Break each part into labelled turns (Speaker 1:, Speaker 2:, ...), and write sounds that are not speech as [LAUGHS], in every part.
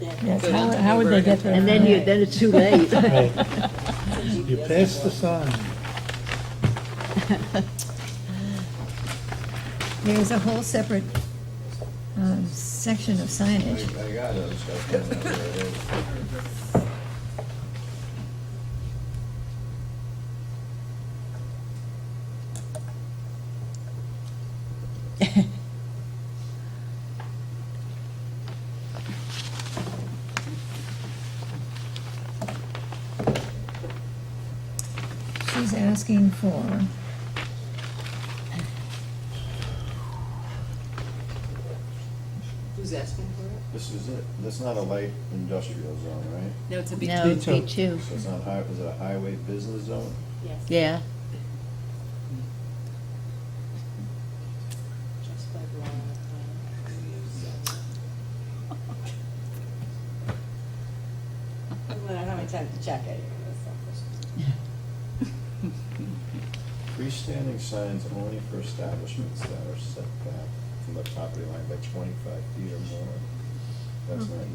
Speaker 1: Yes,
Speaker 2: Good.
Speaker 1: how, how would they get there?
Speaker 3: And then you, then it's too late.
Speaker 4: Right. [LAUGHS] You passed the sign.
Speaker 1: There's a whole separate, um, section of signage. [LAUGHS]
Speaker 5: I got those stuff coming up there.
Speaker 1: She's asking for
Speaker 2: Who's asking for it?
Speaker 5: This is it. That's not a light industrial zone, right?
Speaker 2: No, it's a big.
Speaker 3: No, it's
Speaker 4: B2.
Speaker 3: B2,
Speaker 5: So it's not high, is it a highway business zone?
Speaker 2: Yes.
Speaker 3: yeah.
Speaker 2: Just by blowing the plan. I don't know how many times to check it.
Speaker 5: Freestanding signs only for establishments that are set back from the property line by twenty-five feet or more.
Speaker 1: Mm.
Speaker 5: That's not here.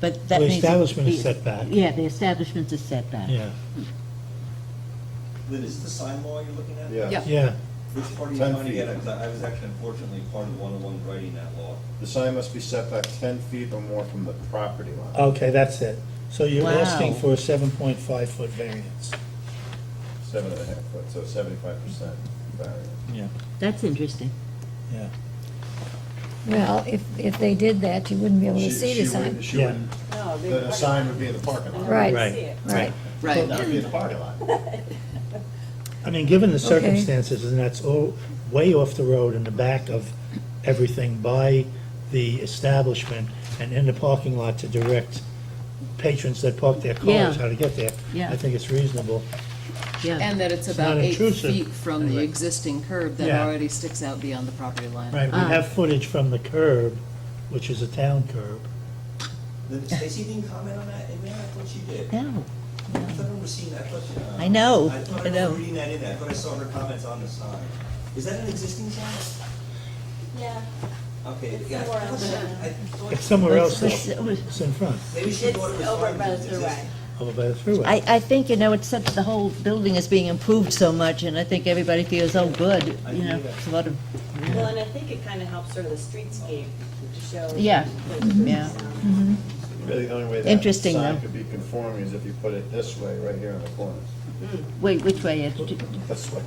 Speaker 3: But that
Speaker 4: The
Speaker 3: means.
Speaker 4: establishment is set back.
Speaker 3: Yeah, the establishment's a setback.
Speaker 4: Yeah,
Speaker 6: Lynn, is this the sign law you're looking at?
Speaker 5: Yeah,
Speaker 2: Yeah.
Speaker 4: yeah.
Speaker 6: Which part are you
Speaker 5: Ten
Speaker 6: trying to get
Speaker 5: feet.
Speaker 6: at? 'Cause I I was actually unfortunately part of the one-on-one writing that law.
Speaker 5: the sign must be set back ten feet or more from the property line.
Speaker 4: Okay, that's it. So you're
Speaker 3: Wow.
Speaker 4: asking for a 7.5 foot variance.
Speaker 5: Seven and a half foot, so seventy-five percent variance.
Speaker 4: Yeah.
Speaker 3: That's interesting.
Speaker 4: Yeah.
Speaker 1: Well, if, if they did that, you wouldn't be able to
Speaker 5: She-
Speaker 1: see
Speaker 5: she
Speaker 1: the sign.
Speaker 5: wouldn't- She
Speaker 4: Yeah.
Speaker 5: wouldn't,
Speaker 2: No, they.
Speaker 5: the sign would be in the parking lot.
Speaker 1: Right.
Speaker 4: Right.
Speaker 2: See it.
Speaker 1: Right.
Speaker 5: It would not be in the parking lot.
Speaker 4: I mean, given the
Speaker 1: Okay.
Speaker 4: circumstances, and that's all, way off the road in the back of everything by the establishment and in the parking lot to direct patrons that park their
Speaker 3: Yeah.
Speaker 4: cars how to get there.
Speaker 3: Yeah.
Speaker 4: I think it's reasonable.
Speaker 3: Yeah,
Speaker 7: And that it's
Speaker 4: It's
Speaker 7: about
Speaker 4: not
Speaker 7: eight
Speaker 4: intrusive.
Speaker 7: feet from the
Speaker 4: Right.
Speaker 7: existing curb that
Speaker 4: Yeah.
Speaker 7: already sticks out beyond the property line.
Speaker 4: Right, we
Speaker 3: Ah.
Speaker 4: have footage from the curb, which is a town curb.
Speaker 6: Lynn, Stacy didn't comment on that in there? I thought she did. I
Speaker 3: no,
Speaker 6: thought I remember seeing that, I thought she. uh,
Speaker 3: I know,
Speaker 6: I thought
Speaker 3: I
Speaker 6: I
Speaker 3: know.
Speaker 6: remember reading that in there. I thought I saw her comments on the sign. Is that an existing sign?
Speaker 2: Yeah.
Speaker 6: Okay,
Speaker 2: It's
Speaker 6: yeah. I
Speaker 2: somewhere
Speaker 6: thought
Speaker 2: else.
Speaker 6: that- I thought-
Speaker 4: It's somewhere else,
Speaker 3: Let's-
Speaker 4: though.
Speaker 3: let's-
Speaker 4: It's in front,
Speaker 6: Maybe she
Speaker 2: It's
Speaker 6: thought it was.
Speaker 2: over
Speaker 6: fine
Speaker 2: by the
Speaker 6: because it's
Speaker 2: throughway.
Speaker 6: existing.
Speaker 4: over by the freeway.
Speaker 3: I, I think, you know, it's such, the whole building is being improved so much, and I think everybody feels, oh, good, you know, it's a lot of,
Speaker 2: Well, and I think it kind of helps sort of the streetscape to show.
Speaker 3: Yeah. Mm-hmm.
Speaker 2: the-
Speaker 3: yeah.
Speaker 5: Really, the only way that
Speaker 3: Interesting,
Speaker 5: sign
Speaker 3: though.
Speaker 5: could be conforming is if you put it this way, right here on the corner.
Speaker 3: Wait, which way, Ed?
Speaker 5: This way.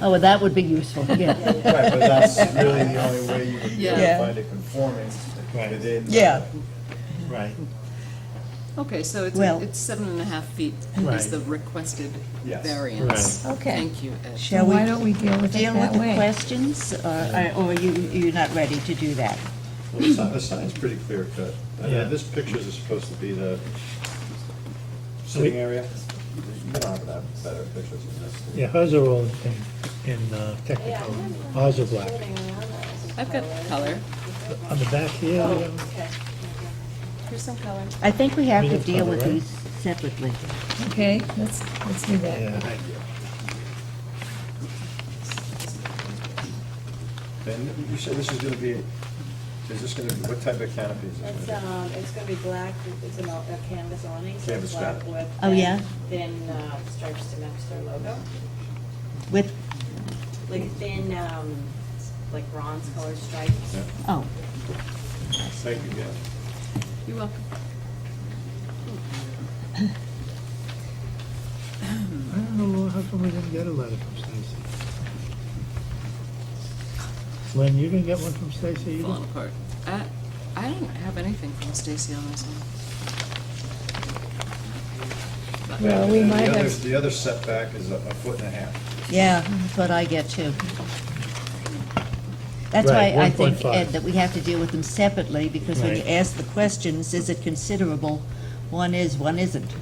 Speaker 3: Oh, well, that would be useful, yeah.
Speaker 5: Right, but that's really the only way you would be able to
Speaker 3: Yeah.
Speaker 5: find it conforming
Speaker 4: Right.
Speaker 5: within.
Speaker 3: Yeah.
Speaker 4: Right,
Speaker 7: Okay, so it's,
Speaker 3: Well-
Speaker 7: it's seven and a half feet
Speaker 4: Right.
Speaker 7: is the requested
Speaker 5: Yes.
Speaker 7: variance.
Speaker 1: Right. Okay.
Speaker 7: Thank you, Ed.
Speaker 1: So why don't we deal with it
Speaker 3: Deal with
Speaker 1: that
Speaker 3: the
Speaker 1: way?
Speaker 3: questions, or, or you, you're not ready to do that?
Speaker 5: Well, The sign- the sign's pretty clear cut. I
Speaker 4: Yeah.
Speaker 5: know This pictures is supposed to be the sitting area. You don't have to have better pictures than this.
Speaker 4: yeah, hers are all in, in uh, technical, ours are black.
Speaker 7: I've got color.
Speaker 4: On the back here, we have-
Speaker 3: Oh,
Speaker 7: Here's some color.
Speaker 3: I think we have
Speaker 4: We
Speaker 3: to
Speaker 4: have
Speaker 3: deal
Speaker 4: cover,
Speaker 3: with
Speaker 4: right?
Speaker 3: these separately.
Speaker 1: Okay, let's, let's do that.
Speaker 4: yeah,
Speaker 5: And you said this is gonna be, is this gonna be, what type of canopy is this
Speaker 2: It's,
Speaker 5: gonna
Speaker 2: um, it's gonna be black, it's an all- a canvas awning. so
Speaker 5: Canvas
Speaker 2: black
Speaker 5: wrap.
Speaker 2: with
Speaker 3: Oh,
Speaker 2: thin-
Speaker 3: yeah?
Speaker 2: Thin uh, stripes to match their logo,
Speaker 3: With,
Speaker 2: like thin, um, like bronze colored stripes.
Speaker 5: Yeah.
Speaker 3: oh,
Speaker 5: be? Thank you, guys.
Speaker 7: You're welcome.
Speaker 4: I don't know, how come we didn't get a letter from Stacy? Lynn, you didn't get one from Stacy either?
Speaker 7: Falling apart. I, I don't have anything from Stacy on this one.
Speaker 1: Well, we
Speaker 5: And the
Speaker 1: might
Speaker 5: other-
Speaker 1: have,
Speaker 5: The other setback is a a foot and a half.
Speaker 3: yeah, that's what I get too. That's why
Speaker 4: Right,
Speaker 3: I think,
Speaker 4: 1.5.
Speaker 3: Ed, that we have to deal with them separately, because when you
Speaker 4: Right.
Speaker 3: ask the questions, is it considerable? One is, one isn't.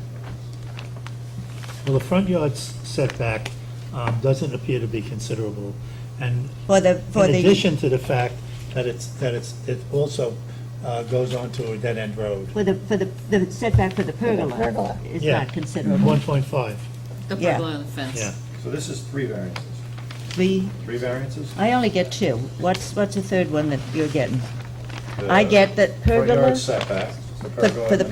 Speaker 4: Well, the front yard s- setback um, doesn't appear to be considerable, and
Speaker 3: For the, for
Speaker 4: in
Speaker 3: the.
Speaker 4: addition to the fact that it's, that it's, it also uh, goes onto a dead-end road.
Speaker 3: For the, for the, the setback for the pergola
Speaker 1: pergola.
Speaker 3: is
Speaker 4: Yeah,
Speaker 3: not considerable.
Speaker 4: 1.5,
Speaker 7: The
Speaker 3: Yeah.
Speaker 7: purple on the fence.
Speaker 4: yeah.
Speaker 5: So this is three variances.
Speaker 3: We,
Speaker 5: Three variances?
Speaker 3: I only get two. What's, what's the third one that you're getting? I get that
Speaker 5: Front
Speaker 3: pergola.
Speaker 5: yard setback.
Speaker 3: For- for the